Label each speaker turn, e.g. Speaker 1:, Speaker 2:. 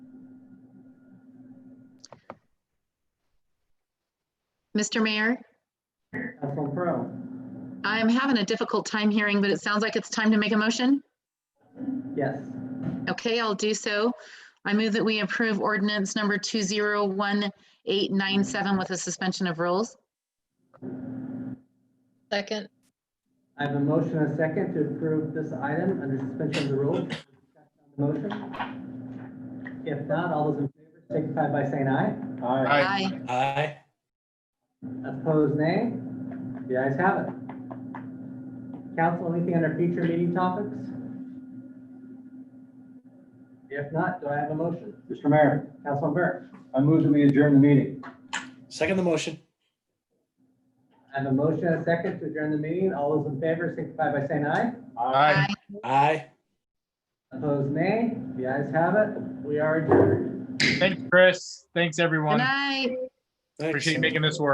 Speaker 1: Mr. Mayor,
Speaker 2: Councilman Pearl.
Speaker 1: I'm having a difficult time hearing, but it sounds like it's time to make a motion.
Speaker 2: Yes.
Speaker 1: Okay, I'll do so. I move that we approve ordinance number 201897 with a suspension of rules.
Speaker 3: Second,
Speaker 2: I have a motion and a second to approve this item under suspension of the rules. Discussion on the Motion. If not, all those in favor signify by saying aye.
Speaker 4: Aye.
Speaker 1: Aye.
Speaker 5: Aye.
Speaker 2: Opposed, nay. The ayes have it. Council, anything under future meeting topics? If not, do I have a motion?
Speaker 4: Mr. Mayor,
Speaker 2: Councilman Burke.
Speaker 4: I move that we adjourn the meeting.
Speaker 5: Second the motion.
Speaker 2: I have a motion and a second to adjourn the meeting. All those in favor signify by saying aye.
Speaker 1: Aye.
Speaker 5: Aye.
Speaker 2: Opposed, nay. The ayes have it. We are adjourned.
Speaker 6: Thanks, Chris. Thanks,
Speaker 1: Good
Speaker 6: everyone.
Speaker 1: night.
Speaker 5: Thanks.
Speaker 6: Appreciate you making this work.